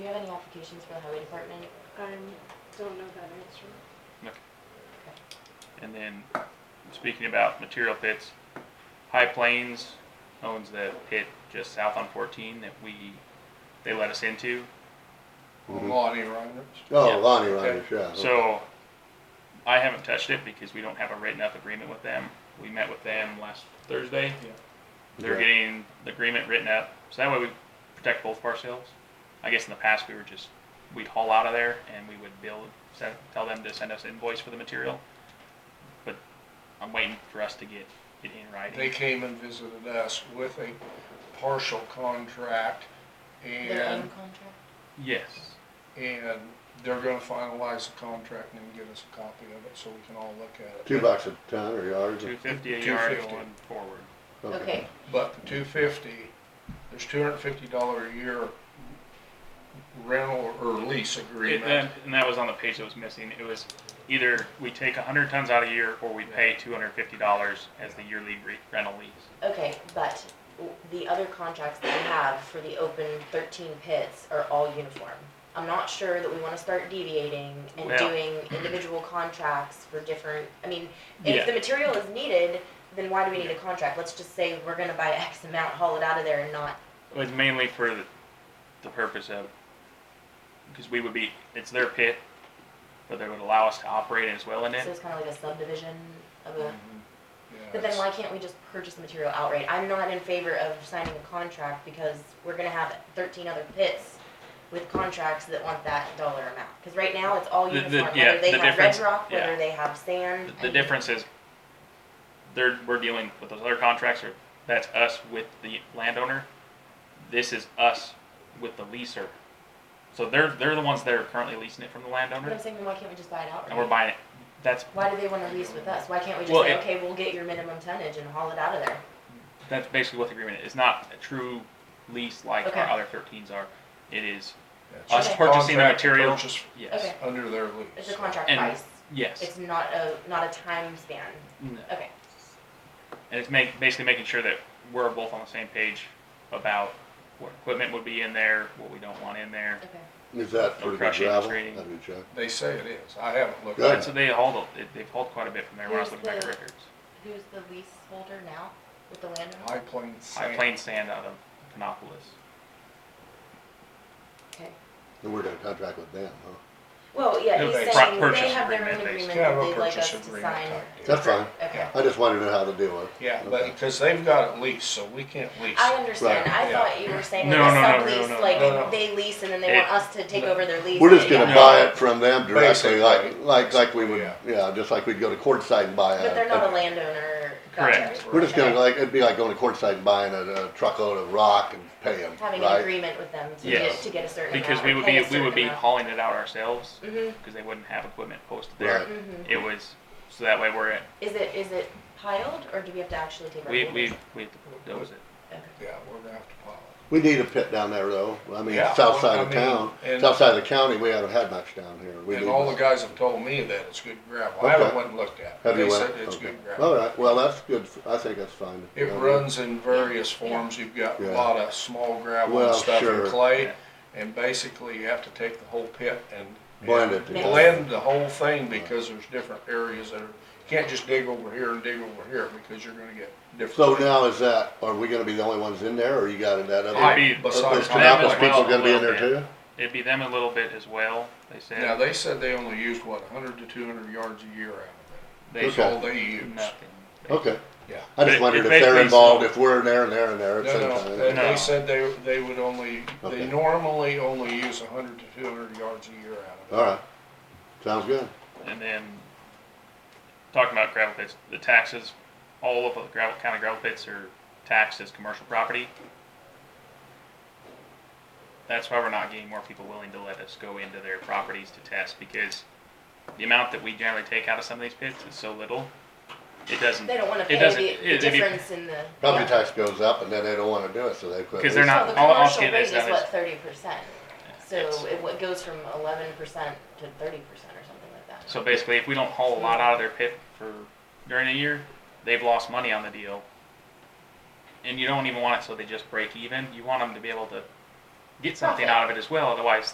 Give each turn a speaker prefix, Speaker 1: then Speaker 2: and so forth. Speaker 1: qualifications for the highway department?
Speaker 2: I don't know that answer.
Speaker 3: And then, speaking about material pits, High Plains owns the pit just south on 14 that we, they let us into.
Speaker 4: Well, Lonnie Reynolds.
Speaker 3: Yeah.
Speaker 5: Mm-hmm. Oh, Lonnie Rogers, yeah.
Speaker 3: So, I haven't touched it because we don't have a written up agreement with them. We met with them last Thursday. They're
Speaker 5: Okay.
Speaker 3: getting the agreement written up, so that way we protect both of ourselves. I guess in the past, we were just, we'd haul out of there and we would build, send, tell them to send us invoice for the material. But I'm waiting for us to get it in writing.
Speaker 4: They came and visited us with a partial contract
Speaker 1: Their own
Speaker 4: and,
Speaker 1: contract?
Speaker 3: Yes.
Speaker 4: and they're gonna finalize the contract and then get us a copy of it so we can all look at it.
Speaker 5: Two bucks a ton or yards?
Speaker 3: Two fifty a yard
Speaker 4: 250.
Speaker 3: going forward.
Speaker 1: Okay,
Speaker 4: But the two fifty, there's two hundred and fifty dollar a year rental or lease
Speaker 3: It-
Speaker 4: agreement.
Speaker 3: And and that was on the page that was missing. It was either we take hundred tons out a year or we pay two hundred and fifty dollars as the yearly re- rental lease.
Speaker 1: okay, but w- the other contracts that we have for the open thirteen pits are all uniform. I'm not sure that we wanna start deviating and
Speaker 3: Well-
Speaker 1: doing individual contracts for different, I mean,
Speaker 3: Yeah.
Speaker 1: if the material is needed, then why do we need a contract? Let's just say we're gonna buy X amount, haul it out of there and not,
Speaker 3: It was mainly for the, the purpose of, because we would be, it's their pit, but they would allow us to operate as well in
Speaker 1: so
Speaker 3: it.
Speaker 1: it's kinda like a subdivision of a.
Speaker 4: Mhm. Yeah,
Speaker 1: But then
Speaker 4: it's-
Speaker 1: why can't we just purchase the material outright? I'm not in favor of signing a contract because we're gonna have thirteen other pits with contracts that want that dollar amount. Cause right now, it's all
Speaker 3: The- the-
Speaker 1: uniform,
Speaker 3: yeah,
Speaker 1: whether they
Speaker 3: the
Speaker 1: have red
Speaker 3: difference-
Speaker 1: rock, whether
Speaker 3: yeah.
Speaker 1: they have sand.
Speaker 3: The difference is, they're, we're dealing with those other contracts, or that's us with the landowner. This is us with the leaser. So they're, they're the ones that are currently leasing it from the
Speaker 1: But I'm
Speaker 3: landowner,
Speaker 1: saying, then why can't we just buy it
Speaker 3: and we're
Speaker 1: outright?
Speaker 3: buying it. That's,
Speaker 1: Why do they wanna lease with us? Why can't we just
Speaker 3: Well,
Speaker 1: say,
Speaker 3: it-
Speaker 1: okay, we'll get your minimum tonnage and haul it out of there?
Speaker 3: that's basically what the agreement is. It's not a true lease like our
Speaker 1: Okay.
Speaker 3: other thirteens are. It is,
Speaker 4: it's
Speaker 1: us
Speaker 4: just a
Speaker 3: purchasing the
Speaker 4: contract to
Speaker 3: material.
Speaker 4: purchase
Speaker 3: yes,
Speaker 1: Okay.
Speaker 4: Under their
Speaker 1: It's a
Speaker 4: lease.
Speaker 1: contract
Speaker 3: And-
Speaker 1: price.
Speaker 3: yes.
Speaker 1: It's not a, not a time span.
Speaker 3: No.
Speaker 1: Okay,
Speaker 3: And it's make, basically making sure that we're both on the same page about what equipment would be in there, what we don't want in there.
Speaker 1: okay.
Speaker 5: Is that for the
Speaker 3: Crushing,
Speaker 5: gravel?
Speaker 3: screening.
Speaker 5: Have you checked?
Speaker 4: They say it is. I haven't looked.
Speaker 5: Good.
Speaker 3: And so they hauled, a- they- they've hauled quite a bit from there when I was
Speaker 1: Who's
Speaker 3: looking back at
Speaker 1: the-
Speaker 3: records.
Speaker 1: Who's the leaseholder now with the
Speaker 4: High
Speaker 1: landowner?
Speaker 4: Plains
Speaker 3: I
Speaker 4: Sand.
Speaker 3: plain sand out of Panopolis.
Speaker 1: Okay.
Speaker 5: And we're gonna contract with them, huh?
Speaker 1: Well, yeah,
Speaker 4: No,
Speaker 1: he's
Speaker 4: they-
Speaker 1: saying
Speaker 3: Pri-
Speaker 1: they
Speaker 3: purchase
Speaker 1: have their own
Speaker 3: agreement, they
Speaker 1: agreement
Speaker 4: have
Speaker 1: that
Speaker 4: a
Speaker 1: they'd like us
Speaker 4: purchase
Speaker 1: to
Speaker 4: agreement
Speaker 1: sign.
Speaker 4: type deal.
Speaker 5: That's fine.
Speaker 1: Okay.
Speaker 5: I just wanted to know how to deal with it.
Speaker 4: Yeah,
Speaker 5: Okay.
Speaker 4: but, cause they've got it leased, so we can't lease.
Speaker 1: I understand.
Speaker 5: Right.
Speaker 1: I
Speaker 4: Yeah.
Speaker 1: thought you were saying
Speaker 3: No,
Speaker 1: like a
Speaker 3: no, no, no,
Speaker 1: sublease,
Speaker 3: no,
Speaker 1: like
Speaker 4: no, no.
Speaker 1: they lease and then they
Speaker 3: It-
Speaker 1: want us to take over their lease.
Speaker 5: We're just
Speaker 1: and-
Speaker 5: gonna
Speaker 3: Yeah.
Speaker 5: buy it from them directly,
Speaker 4: Basically.
Speaker 5: like, like, like we would,
Speaker 4: Yeah.
Speaker 5: yeah, just like we'd go to Quartzsite and buy a.
Speaker 1: But they're not a
Speaker 5: a-
Speaker 1: landowner.
Speaker 3: Correct.
Speaker 1: contract.
Speaker 5: We're just gonna,
Speaker 1: Okay.
Speaker 5: like, it'd be like going to Quartzsite and buying a, a truckload of rock and pay them,
Speaker 1: Having an
Speaker 5: right?
Speaker 1: agreement with them to
Speaker 3: Yes.
Speaker 1: get, to get a certain amount.
Speaker 3: Because we would be, we would be hauling it out ourselves,
Speaker 1: Mm-hmm,
Speaker 3: because they wouldn't have equipment posted
Speaker 5: Right.
Speaker 3: there.
Speaker 1: mm-hmm.
Speaker 3: It was, so that way we're, at-
Speaker 1: Is it, is it piled or do we have to actually take our?
Speaker 3: we,
Speaker 1: own?
Speaker 3: we, we, that was it.
Speaker 1: Okay.
Speaker 4: Yeah, we're gonna have to pile
Speaker 5: We need a pit down there though, I mean,
Speaker 4: Yeah,
Speaker 5: south
Speaker 4: well,
Speaker 5: side of
Speaker 4: I mean,
Speaker 5: town,
Speaker 4: and-
Speaker 5: south side of the county, we haven't had much down here. We
Speaker 4: it. And
Speaker 5: need-
Speaker 4: all the guys have told me that it's good gravel. I haven't
Speaker 5: Okay.
Speaker 4: went and looked at it.
Speaker 5: Have you
Speaker 4: They
Speaker 5: went?
Speaker 4: said it's
Speaker 5: Okay.
Speaker 4: good
Speaker 5: All
Speaker 4: gravel.
Speaker 5: right, well, that's good, f- I think that's fine.
Speaker 4: It
Speaker 5: Yeah.
Speaker 4: runs in various forms. You've got a
Speaker 5: Yeah.
Speaker 4: lot of small gravel
Speaker 5: Well,
Speaker 4: and stuff
Speaker 5: sure.
Speaker 4: and clay.
Speaker 3: Yeah.
Speaker 4: And basically you have to take the whole pit and.
Speaker 5: Blend it
Speaker 4: and
Speaker 5: together.
Speaker 4: Blend the whole thing because there's different areas that are, you can't just dig over here and dig over here because you're gonna get
Speaker 5: So
Speaker 4: different.
Speaker 5: now is that, are we gonna be the only ones in there, or you got that other?
Speaker 3: It'd
Speaker 5: Are
Speaker 3: be,
Speaker 4: Besides
Speaker 5: those
Speaker 4: that,
Speaker 3: well,
Speaker 5: Kannapolis people gonna be in there
Speaker 3: well,
Speaker 5: too?
Speaker 3: it'd be them a little bit as well, they
Speaker 4: Now,
Speaker 3: said.
Speaker 4: they said they only used what, hundred to two hundred yards a year out of
Speaker 3: They
Speaker 4: it. That's all
Speaker 3: sold
Speaker 4: they used.
Speaker 3: nothing. They-
Speaker 5: Okay.
Speaker 4: Yeah.
Speaker 5: I
Speaker 3: But
Speaker 5: just
Speaker 3: it-
Speaker 5: wondered
Speaker 3: it
Speaker 5: if they're
Speaker 3: basically-
Speaker 5: involved, if we're in there and they're in there at the
Speaker 4: No,
Speaker 5: same
Speaker 4: no, they,
Speaker 5: time.
Speaker 3: No.
Speaker 4: they said they, they would only,
Speaker 5: Okay.
Speaker 4: they normally only use hundred to two hundred yards a year out of
Speaker 5: All right, sounds good.
Speaker 3: And then, talking about gravel pits, the taxes, all of the gravel, county gravel pits are taxed as commercial property. That's why we're not getting more people willing to let us go into their properties to test, because the amount that we generally take out of some of these pits is so little, it doesn't,
Speaker 1: They don't wanna
Speaker 3: It
Speaker 1: pay
Speaker 3: doesn't-
Speaker 1: the, the
Speaker 3: it- it'd be-
Speaker 1: difference in the.
Speaker 5: Property
Speaker 1: yeah.
Speaker 5: tax goes up and then they don't wanna do it, so they quit.
Speaker 3: Because they're
Speaker 5: leasing.
Speaker 3: not-
Speaker 1: So the
Speaker 3: I'll- I'll
Speaker 1: commercial
Speaker 3: get
Speaker 1: rate is
Speaker 3: this done.
Speaker 1: what, thirty percent?
Speaker 3: It's-
Speaker 1: So it wa- goes from eleven percent to thirty percent or something like that.
Speaker 3: so basically, if we don't haul a lot out of their pit for, during a year, they've lost money on the deal. And you don't even want it so they just break even, you want them to be able to get something
Speaker 1: Profit.
Speaker 3: out of it as well, otherwise